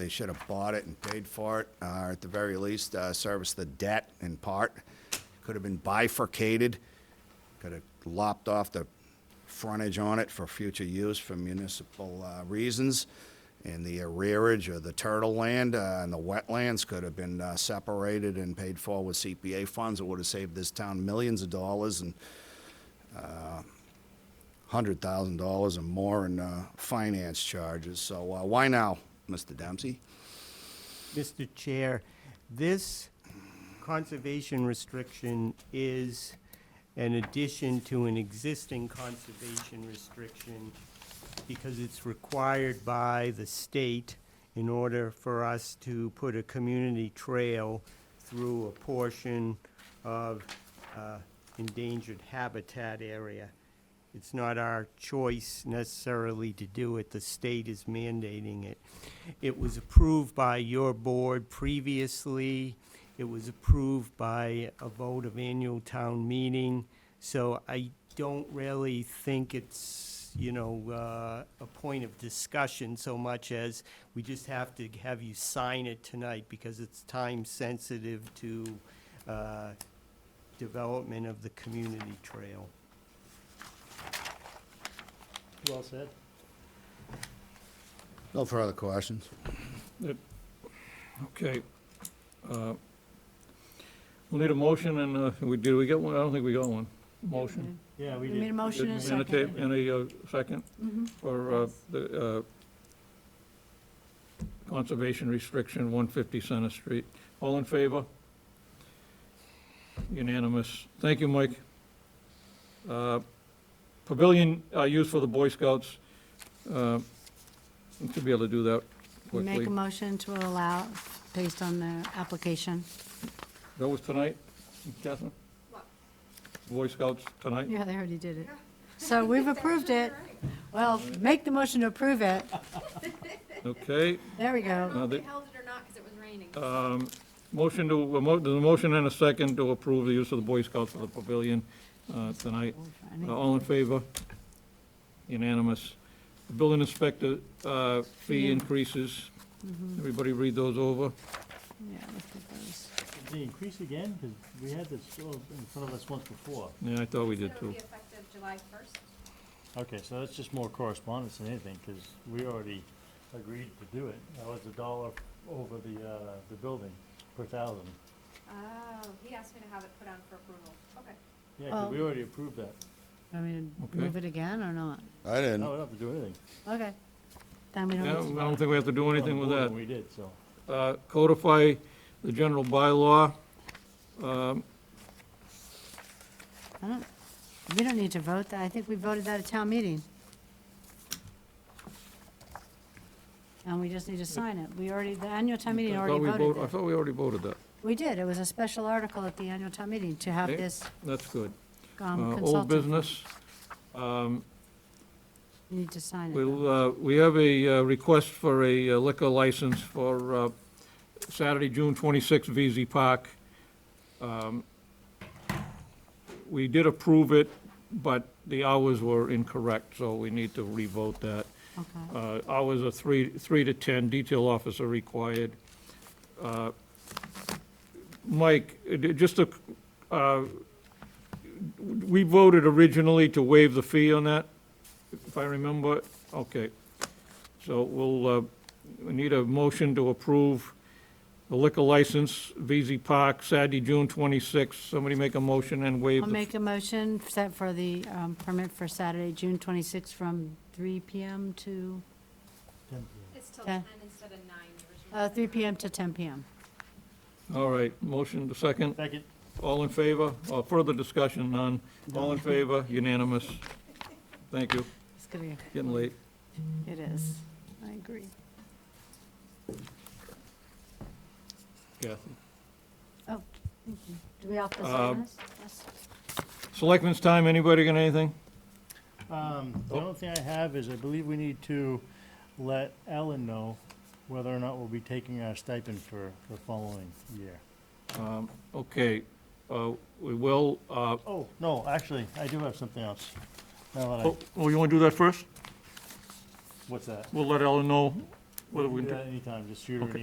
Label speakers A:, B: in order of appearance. A: They should have bought it and paid for it, uh, or at the very least, uh, service the debt in part. Could have been bifurcated, could have lopped off the frontage on it for future use for municipal uh, reasons. And the arrearage or the turtle land uh, and the wetlands could have been uh, separated and paid for with CPA funds. It would have saved this town millions of dollars and hundred thousand dollars or more in uh, finance charges. So uh, why now, Mr. Dempsey?
B: Mr. Chair, this conservation restriction is an addition to an existing conservation restriction because it's required by the state in order for us to put a community trail through a portion of uh, endangered habitat area. It's not our choice necessarily to do it, the state is mandating it. It was approved by your board previously, it was approved by a vote of annual town meeting, so I don't really think it's, you know, uh, a point of discussion so much as we just have to have you sign it tonight because it's time-sensitive to uh, development of the community trail.
C: Well said.
A: No further questions.
C: Okay. Uh, We'll need a motion and, uh, we, did we get one? I don't think we got one. Motion.
B: Yeah,
D: We made a motion and a
C: And a tape, and
D: second.
C: a uh, second
D: Mhm.
C: for uh, the uh, conservation restriction, 150 Center Street. All in favor? Unanimous. Thank you, Mike. Uh, Pavilion uh, used for the Boy Scouts. Uh, we Should be able to do that
D: We
C: quickly.
D: Mm-hmm. Make a motion to allow, based on the application.
C: That was tonight, Catherine? Boy Scouts tonight?
D: Yeah, they already did it. So we've approved it. Well, make the motion to approve it.
C: Okay,
D: There we
E: I don't know
D: go.
C: Uh,
E: if they
C: the-
E: held it or not, because it was raining.
C: um, motion to, a mo- there's a motion and a second to approve the use of the Boy Scouts for the pavilion, uh, tonight. Uh, All in favor? Unanimous. The Building inspector, uh, fee
D: Yeah. Mm-hmm.
C: increases. Everybody read those over.
D: Yeah, look at those.
F: Did they increase again? Because we had this all in front of us once before.
C: Yeah, I thought we
E: So
C: did
E: it'll
C: too.
E: be effective July 1st.
F: Okay, so that's just more correspondence than anything, because we already agreed to do it. That was a dollar over the, uh, the building per thousand.
E: Oh, he asked me to have it put on for approval. Okay.
F: Yeah, 'cause we
D: Oh.
F: already approved that.
D: I mean,
C: Okay.
D: move it again or not?
A: I didn't.
F: No, we don't have to do anything.
D: Okay. Then we
C: Yeah, I
D: don't,
C: don't think we have to do
F: We're on
C: anything
F: the
C: with
F: board
C: that.
F: when We did, so.
C: uh, codify the general bylaw. Um,
D: I don't, we don't need to vote that. I think we voted that at town meeting. And we just need to sign it. We already, the annual town meeting
C: I
D: already
C: thought we
D: voted
C: vote- I
D: that.
C: thought we already voted that.
D: We did. It was a special article at the annual town meeting to have
C: Okay.
D: this
C: That's good.
D: um,
C: Uh, Old
D: consultant.
C: business. Um,
D: You Need to sign it. though.
C: We'll, uh, we have a uh, request for a uh, liquor license for uh, Saturday, June 26th, VZ Park. Um, We did approve it, but the hours were incorrect, so we need to revote that.
D: Okay.
C: Uh, Hours are three, three to 10, detail officer required. Uh, Mike, uh, d- just a, uh, we voted originally to waive the fee on that, if I remember, okay. So we'll, uh, we need a motion to approve the liquor license, VZ Park, Saturday, June 26th. Somebody make a motion and waive
D: I'll
C: the
D: make a motion set for the um, permit for Saturday, June 26th, from 3 PM to,
F: Ten p.m.
E: It's till
D: Okay.
E: 10 instead of 9 originally.
D: uh, 3 PM to 10 PM.
C: All right, motion to second.
F: Second,
C: All in favor? Uh, Further discussion, none. All in favor? Unanimous. Thank you.
D: It's gonna
C: Getting late.
D: be, it is. I agree.
C: Kathy.
D: Oh, Thank you. Do we have to
C: Um,
D: sign this? Yes.
C: Selectmen's time, anybody got anything?
F: um, the
C: Oh.
F: only thing I have is I believe we need to let Ellen know whether or not we'll be taking our stipend for the following year.
C: Um, Okay, uh, we will, uh,
F: Oh, no, actually, I do have something else. Now that I,
C: oh, oh, you want to do that first?
F: what's that?
C: We'll let Ellen know Whether we
F: can
C: can
F: do
C: do-
F: that anytime, just shoot her an
C: Okay.